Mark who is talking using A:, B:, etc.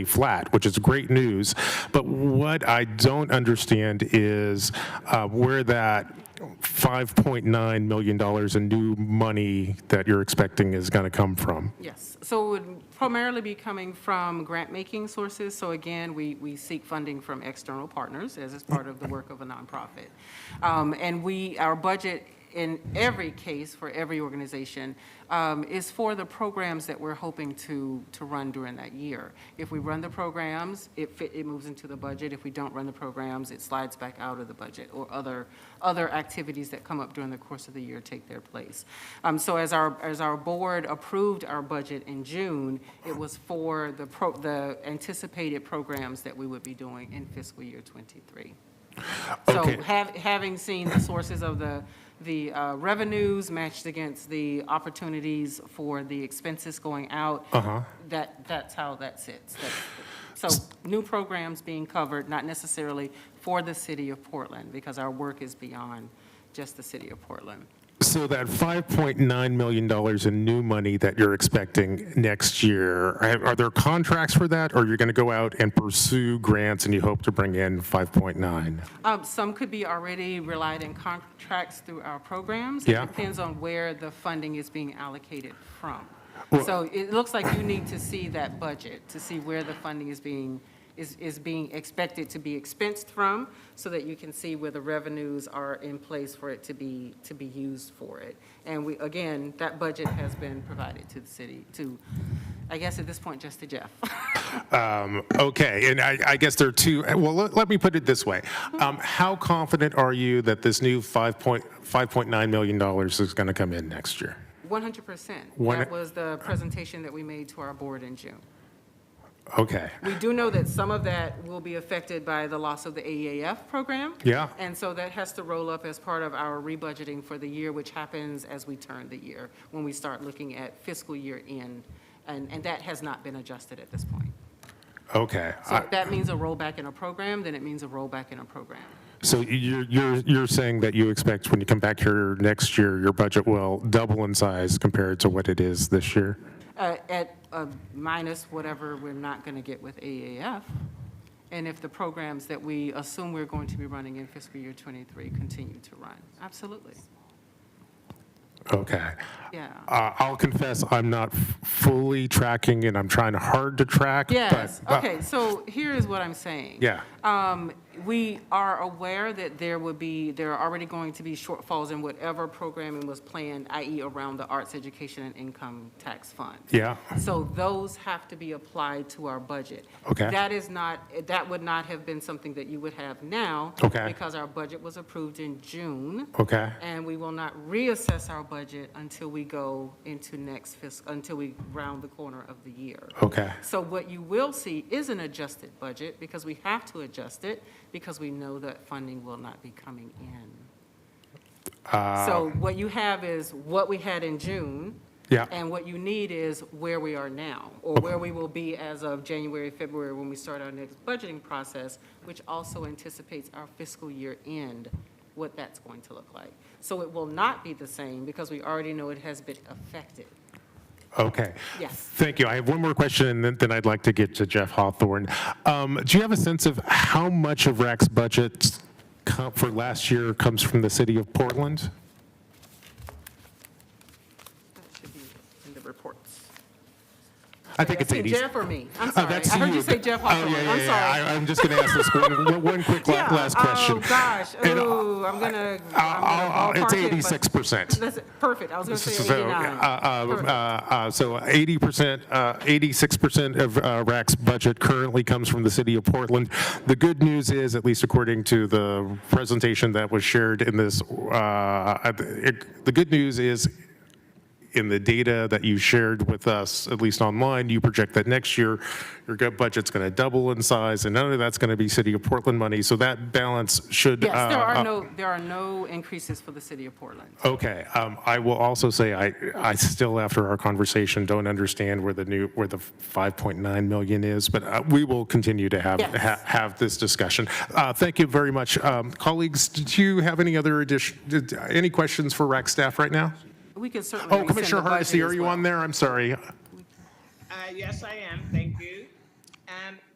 A: flat, which is great news. But what I don't understand is uh, where that $5.9 million in new money that you're expecting is going to come from.
B: Yes, so it would primarily be coming from grant-making sources. So again, we, we seek funding from external partners as is part of the work of a nonprofit. Um, And we, our budget in every case for every organization um, is for the programs that we're hoping to, to run during that year. If we run the programs, it fit, it moves into the budget. If we don't run the programs, it slides back out of the budget or other, other activities that come up during the course of the year take their place. Um, so as our, as our board approved our budget in June, it was for the pro, the anticipated programs that we would be doing in fiscal year twenty-three. So
A: Okay.
B: have, having seen the sources of the, the uh, revenues matched against the opportunities for the expenses going out, that, that's how that sits. That's- So new programs being covered, not necessarily for the city of Portland, because our work is beyond just the city of Portland.
A: So that $5.9 million in new money that you're expecting next year, are are there contracts for that? Or you're going to go out and pursue grants and you hope to bring in 5.9?
B: Um, Some could be already relied on contracts through our programs.
A: Yeah.
B: It depends on where the funding is being allocated from.
A: Well-
B: So it looks like you need to see that budget to see where the funding is being, is, is being expected to be expensed from so that you can see where the revenues are in place for it to be, to be used for it. And we, again, that budget has been provided to the city, to, I guess at this point, just to Jeff.
A: Okay, and I, I guess there are two, well, let, let me put it this way. Um, how confident are you that this new five point, five point nine million dollars is gonna come in next year?
B: 100%.
A: One-
B: That was the presentation that we made to our board in June.
A: Okay,
B: We do know that some of that will be affected by the loss of the AEAF program.
A: Yeah.
B: And so that has to roll up as part of our rebudgeting for the year, which happens as we turn the year, when we start looking at fiscal year end. And, and that has not been adjusted at this point.
A: okay.
B: So
A: I-
B: if that means a rollback in a program, then it means a rollback in a program.
A: So you're, you're, you're saying that you expect when you come back here next year, your budget will double in size compared to what it is this year?
B: Uh, At uh, minus whatever we're not going to get with AEAF. And if the programs that we assume we're going to be running in fiscal year '23 continue to run. Absolutely,
A: Okay.
B: yeah.
A: Uh, I'll confess, I'm not f- fully tracking and I'm trying hard to track. but-
B: Yes,
A: but-
B: okay, so here is what I'm saying.
A: Yeah.
B: Um, We are aware that there would be, there are already going to be shortfalls in whatever programming was planned, i.e. around the arts education and income tax fund.
A: Yeah.
B: So those have to be applied to our budget.
A: Okay.
B: That is not, that would not have been something that you would have now.
A: Okay.
B: Because our budget was approved in June.
A: Okay.
B: And we will not reassess our budget until we go into next fiscal, until we round the corner of the year.
A: Okay.
B: So what you will see is an adjusted budget, because we have to adjust it, because we know that funding will not be coming in. So what you have is what we had in June.
A: Yeah.
B: And what you need is where we are now, or where we will be as of January, February, when we start our next budgeting process, which also anticipates our fiscal year end, what that's going to look like. So it will not be the same, because we already know it has been affected.
A: Okay.
B: Yes.
A: Thank you. I have one more question, and then- then I'd like to get to Jeff Hawthorne. Um, Do you have a sense of how much of RAC's budget com- for last year comes from the city of Portland?
B: That should be in the reports.
A: I think it's
B: Say
A: 80.
B: Jeff or me? I'm sorry.
A: that's
B: I heard you
A: you.
B: say Jeff
A: Oh, yeah,
B: Hawthorne.
A: yeah,
B: I'm
A: yeah.
B: sorry.
A: I- I'm just going to ask this one, one quick la-
B: Yeah,
A: last question.
B: Oh, gosh.
A: And, uh,
B: Ooh, I'm gonna. I'm
A: I'll-
B: gonna
A: I'll- It's
B: ballpark it, but-
A: 86%.
B: That's perfect. I was gonna say
A: So, uh,
B: 89.
A: uh,
B: Perfect.
A: uh, So 80%, uh, 86% of uh, RAC's budget currently comes from the city of Portland. The good news is, at least according to the presentation that was shared in this, uh, at the it- the good news is, in the data that you shared with us, at least online, you project that next year, your gut budget's going to double in size, and none of that's going to be city of Portland money, so that balance should.
B: Yes, there
A: uh,
B: are
A: uh,
B: no, there are no increases for the city of Portland.
A: Okay, um, I will also say, I, I still, after our conversation, don't understand where the new, where the 5.9 million is, but uh, we will continue to have,
B: Yes.
A: ha- have this discussion. Uh, Thank you very much. Um, Colleagues, did you have any other addition, did- any questions for RAC staff right now?
B: We can certainly.
A: Oh,
B: rescind
A: Commissioner
B: the budget
A: Hardesty,
B: as
A: are you
B: well.
A: on there? I'm sorry.
C: Uh, yes, I am, thank you. and